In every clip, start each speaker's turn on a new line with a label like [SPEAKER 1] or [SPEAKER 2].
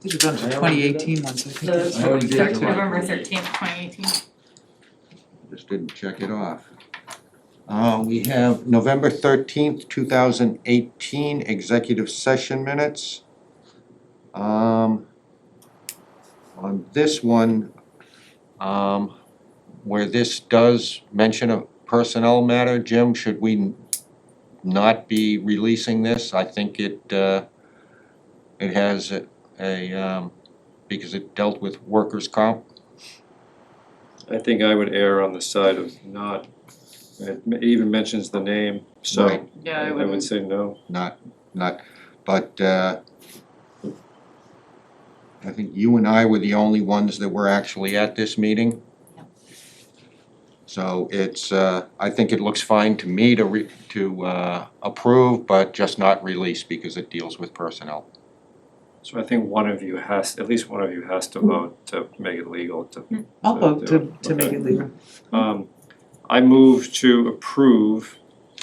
[SPEAKER 1] These are done for
[SPEAKER 2] Yeah.
[SPEAKER 1] twenty eighteen ones, I think.
[SPEAKER 3] The-
[SPEAKER 1] it's
[SPEAKER 2] I already did
[SPEAKER 1] back to-
[SPEAKER 2] the one.
[SPEAKER 3] November thirteenth, twenty eighteen.
[SPEAKER 4] Just didn't check it off. Uh, we have November thirteenth, two thousand eighteen, executive session minutes. Um, on this one, um, where this does mention a personnel matter, Jim, should we n- not be releasing this? I think it, uh, it has a- a, um, because it dealt with workers' comp.
[SPEAKER 5] I think I would err on the side of not, it m- even mentions the name, so
[SPEAKER 4] Right.
[SPEAKER 3] Yeah,
[SPEAKER 5] I
[SPEAKER 3] I
[SPEAKER 5] I would
[SPEAKER 3] wouldn't,
[SPEAKER 5] say no.
[SPEAKER 4] not, not, but uh I think you and I were the only ones that were actually at this meeting.
[SPEAKER 3] Yep.
[SPEAKER 4] So it's, uh I think it looks fine to me to re, to uh approve, but just not release because it deals with personnel.
[SPEAKER 5] So I think one of you has, at least one of you has to vote to make it legal to
[SPEAKER 1] I'll vote to, to make it legal.
[SPEAKER 5] Um, I move to approve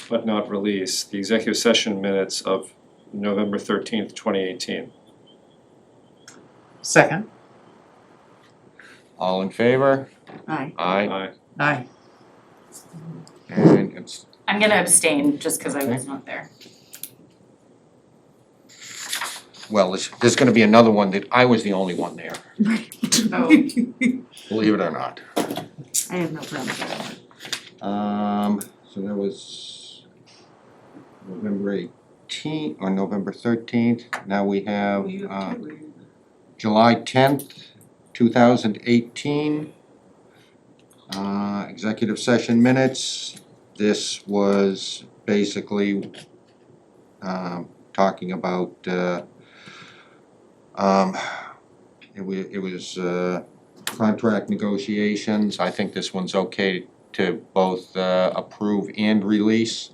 [SPEAKER 5] but not release the executive session minutes of November thirteenth, twenty eighteen.
[SPEAKER 1] Second,
[SPEAKER 4] All in favor?
[SPEAKER 1] Aye.
[SPEAKER 4] Aye.
[SPEAKER 5] I,
[SPEAKER 1] aye.
[SPEAKER 4] And it's,
[SPEAKER 3] I'm gonna abstain just cause I was not there.
[SPEAKER 4] well, there's, there's gonna be another one that I was the only one there,
[SPEAKER 3] Oh,
[SPEAKER 4] believe it or not.
[SPEAKER 6] I have no problem with that.
[SPEAKER 4] Um, so that was November eighteenth or November thirteenth. Now we have uh July tenth, two thousand eighteen. Uh, executive session minutes. This was basically um talking about uh um it wa- it was uh contract negotiations. I think this one's okay to both uh, approve and release.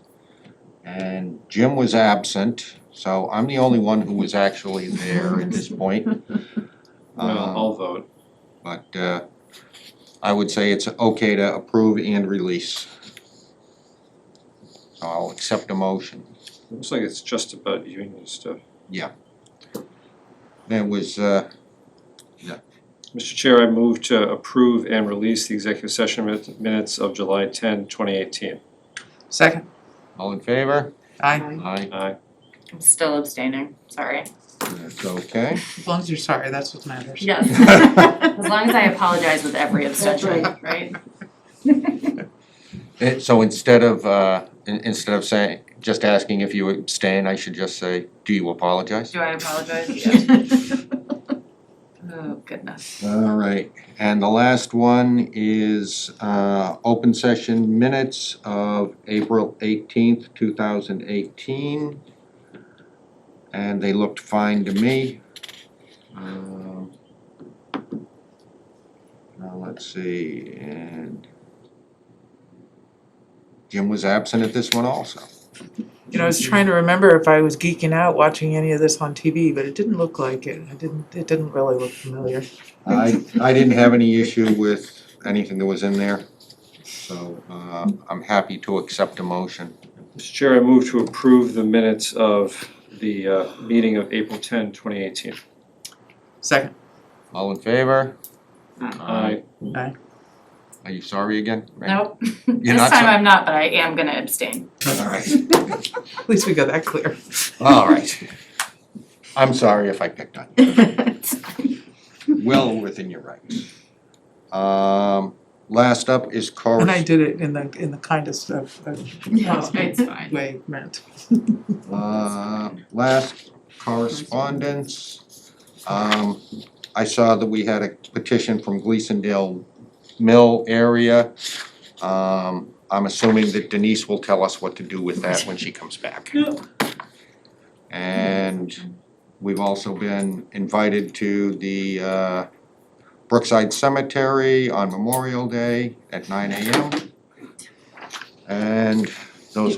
[SPEAKER 4] And Jim was absent, so I'm the only one who was actually there at this point.
[SPEAKER 5] well,
[SPEAKER 4] Um,
[SPEAKER 5] I'll vote.
[SPEAKER 4] But uh, I would say it's okay to approve and release. So I'll accept a motion.
[SPEAKER 5] Looks like it's just about union stuff.
[SPEAKER 4] There was, uh,
[SPEAKER 5] Mr. Chair, I move to approve and release the executive session min- minutes of July 10, 2018.
[SPEAKER 1] Second,
[SPEAKER 4] all in favor?
[SPEAKER 1] aye.
[SPEAKER 4] Aye.
[SPEAKER 5] Aye.
[SPEAKER 3] I'm still abstaining, sorry.
[SPEAKER 4] That's okay.
[SPEAKER 1] As long as you're sorry, that's what matters.
[SPEAKER 3] Yes. As long as I apologize with every abstention,
[SPEAKER 6] That's
[SPEAKER 3] right?
[SPEAKER 4] Eh, So instead of, uh, in- instead of saying, just asking if you abstain, I should just say, do you apologize?
[SPEAKER 3] Do I apologize? Oh, goodness.
[SPEAKER 4] All right, and the last one is uh open session minutes of April eighteenth, two thousand eighteen. And they looked fine to me. Um. Now, let's see, and Jim was absent at this one also.
[SPEAKER 1] You know, I was trying to remember if I was geeking out watching any of this on TV, but it didn't look like it. It didn't, it didn't really look familiar.
[SPEAKER 4] I, I didn't have any issue with anything that was in there, so, uh, I'm happy to accept a motion.
[SPEAKER 5] Mr. Chair, I move to approve the minutes of the uh meeting of April 10, 2018.
[SPEAKER 1] Second,
[SPEAKER 4] All in favor?
[SPEAKER 5] Aye.
[SPEAKER 4] Are you sorry again?
[SPEAKER 3] Nope,
[SPEAKER 4] You're
[SPEAKER 3] this
[SPEAKER 4] not
[SPEAKER 3] time I'm not, but I am gonna abstain.
[SPEAKER 4] sorry? All right,
[SPEAKER 1] at least we got that clear.
[SPEAKER 4] all right. I'm sorry if I picked on you. Well within your rights. Um, last up is
[SPEAKER 1] And I
[SPEAKER 4] corres-
[SPEAKER 1] did it in the, in the kindest of, of
[SPEAKER 3] No, it's fine.
[SPEAKER 1] way meant.
[SPEAKER 4] uh, last correspondence. Um, I saw that we had a petition from Gleasondale Mill area. Um, I'm assuming that Denise will tell us what to do with that when she comes back. And We've also been invited to the uh, Brookside Cemetery on Memorial Day at nine AM. And those,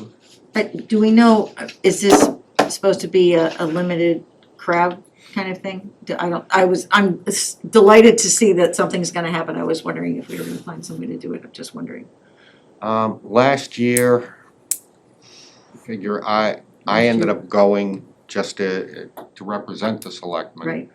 [SPEAKER 6] But do we know, is this supposed to be a, a limited crowd kind of thing? Do- I don't, I was, I'm delighted to see that something's gonna happen. I was wondering if we were gonna find somebody to do it. I'm just wondering.
[SPEAKER 4] um, last year, figure I, I ended up going just to, to represent the selectmen.
[SPEAKER 6] Right,